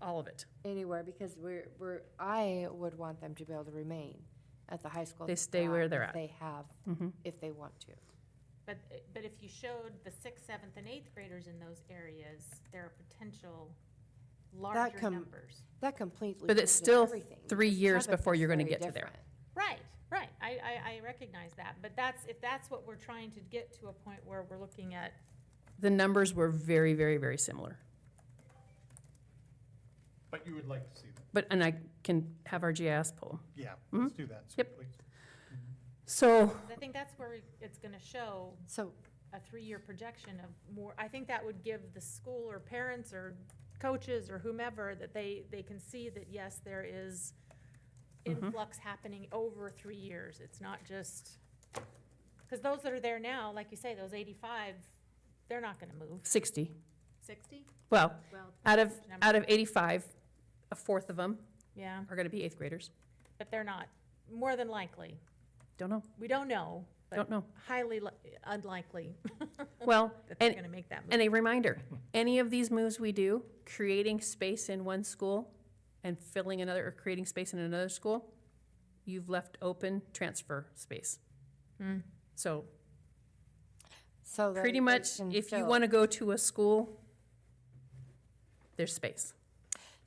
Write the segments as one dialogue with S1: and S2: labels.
S1: all of it.
S2: anywhere because we're, we're, I would want them to be able to remain at the high school.
S1: They
S2: that
S1: stay where they're
S2: if
S1: at. Mm-hmm.
S2: They have, if they want to.
S3: But, but if you showed the sixth, seventh, and eighth graders in those areas, there are potential larger
S2: com-
S3: numbers.
S2: That completely.
S1: But it's
S2: changes
S1: still
S2: everything.
S1: three
S2: Each
S1: years
S2: of us
S1: before
S2: is
S1: you're gonna
S2: very
S1: get to there.
S2: different.
S3: Right, right, I, I, I recognize that, but that's, if that's what we're trying to get to a point where we're looking at,
S1: The numbers were very, very, very similar.
S4: But you would like to see them.
S1: But, and I can have our GIS poll.
S4: Yeah, let's do that.
S1: Yep.
S4: please.
S1: So,
S3: 'cause I think that's where we- it's gonna show
S2: So
S3: a three-year projection of more, I think that would give the school or parents or coaches or whomever, that they, they can see that, yes, there is
S1: Mhm.
S3: influx happening over three years, it's not just, because those that are there now, like you say, those eighty-five, they're not gonna move.
S1: 60,
S3: Sixty?
S1: well,
S3: Well,
S1: out of,
S3: Number.
S1: out of 85, a fourth of them
S3: yeah,
S1: are going to be eighth graders.
S3: but they're not, more than likely,
S1: Don't know,
S3: we don't know,
S1: don't
S3: but
S1: know.
S3: highly li- unlikely
S1: Well,
S3: that they're
S1: and,
S3: gonna make that move.
S1: and a reminder, any of these moves we do, creating space in one school and filling another, or creating space in another school, you've left open transfer space.
S3: Hmm.
S1: So
S2: So that
S1: pretty
S2: they
S1: much,
S2: can
S1: if you
S2: fill.
S1: want to go to a school, there's space.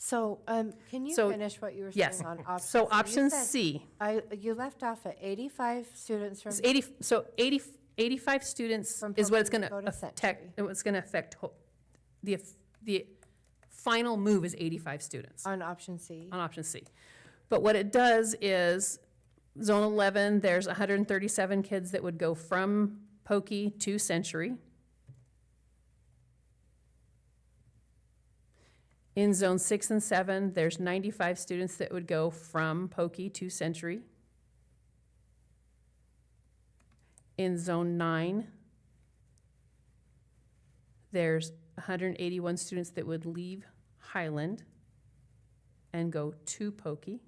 S2: So, um, can you
S1: So-
S2: finish what you were
S1: yes.
S2: saying on option?
S1: So
S2: you
S1: option
S2: said-
S1: C
S2: I, you left off at eighty-five students from,
S1: is 80, so 80, 85 students
S2: From
S1: is what it's going
S2: Pocatello
S1: to
S2: to Century.
S1: affect, it's going to affect, ho- the, eff- the final move is 85 students.
S2: on option C.
S1: on option C. But what it does is, zone eleven, there's hundred and thirty-seven kids that would go from Pokey to Century. In zone six and seven, there's ninety-five students that would go from Pokey to Century. In zone nine, there's hundred and eighty-one students that would leave Highland and go to Pokey.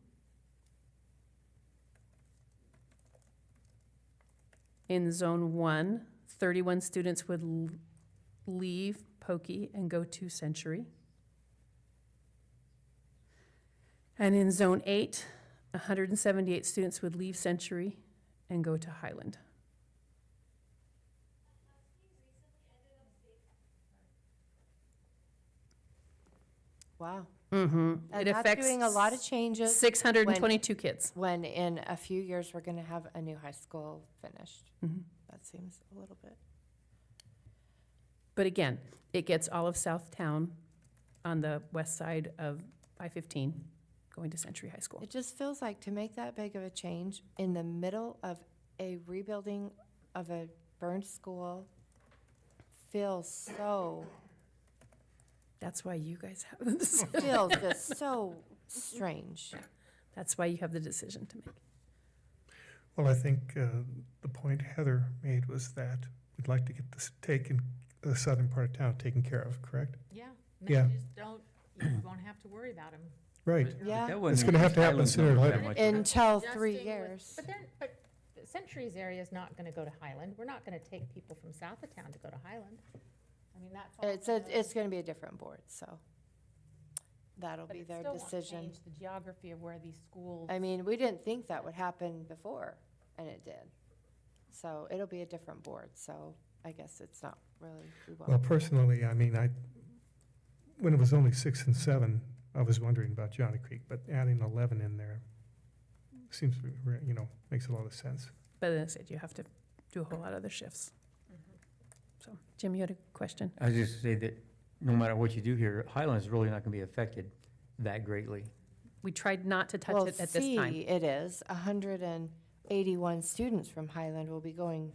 S1: In zone one, 31 students would l- leave Pokey and go to Century. And in zone eight, 178 students would leave Century and go to Highland.
S2: Wow.
S1: Mm-hmm. It
S2: And that's
S1: affects
S2: doing a lot of changes
S1: 622 kids.
S2: when in a few years, we're gonna have a new high school finished.
S1: Mhm.
S2: That seems a little bit.
S1: But again, it gets all of Southtown on the west side of I-15 going to Century High School.
S2: It just feels like to make that big of a change in the middle of a rebuilding of a burned school feels so,
S1: That's why you guys have the decision.
S2: feels just so strange.
S1: That's why you have the decision to make.
S5: Well, I think uh, the point Heather made was that we'd like to get this taken, the southern part of town taken care of, correct?
S3: Yeah.
S5: Yeah.
S3: Just don't, you won't have to worry about them.
S5: Right.
S2: Yeah.
S5: It's gonna have to happen sooner or later.
S2: Until
S3: Adjusting
S2: three
S3: with-
S2: years.
S3: But then, but Century's area is not gonna go to Highland. We're not gonna take people from south of town to go to Highland. I mean, that's. all
S2: It's, a-
S3: gonna-
S2: it's gonna be a different board, so that'll
S3: but
S2: be
S3: it
S2: their
S3: still won't
S2: decision.
S3: Change the geography of where these schools.
S2: I mean, we didn't think that would happen before, and it did. So it'll be a different board, so I guess it's not really. we won't-
S5: Well, personally, I mean, I, when it was only six and seven, I was wondering about Johnny Creek, but adding 11 in there seems, to be re- you know, makes a lot of sense.
S1: But then I said you have to do a whole lot of other shifts.
S2: Mm-hmm.
S1: So, Jim, you had a question?
S6: I was just gonna say that no matter what you do here, Highland's really not gonna be affected that greatly.
S1: We tried not to touch
S2: Well,
S1: it at this time.
S2: C, it is, hundred and eighty-one students from Highland will be going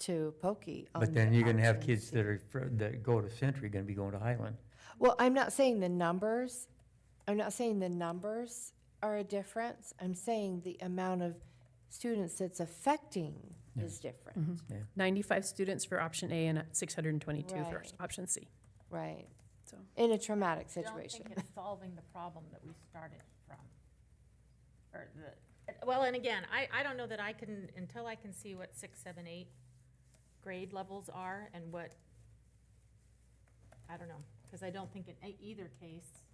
S2: to Pokey. on
S6: But then
S2: the
S6: you're gonna have
S2: option
S6: kids
S2: C.
S6: that are, fr- that go to Century gonna be going to Highland.
S2: Well, I'm not saying the numbers, I'm not saying the numbers are a difference. I'm saying the amount of students that's affecting
S6: Yeah.
S2: is different,
S1: Mm-hmm. 95 students for option A and 622 for
S2: Right.
S1: option C.
S2: right?
S1: So-
S2: In a traumatic
S3: I Don't
S2: situation.
S3: think it's solving the problem that we started from. Or the, well, and again, I, I don't know that I can, until I can see what six, seven, eight grade levels are and what, I don't know, because I don't think in e- either case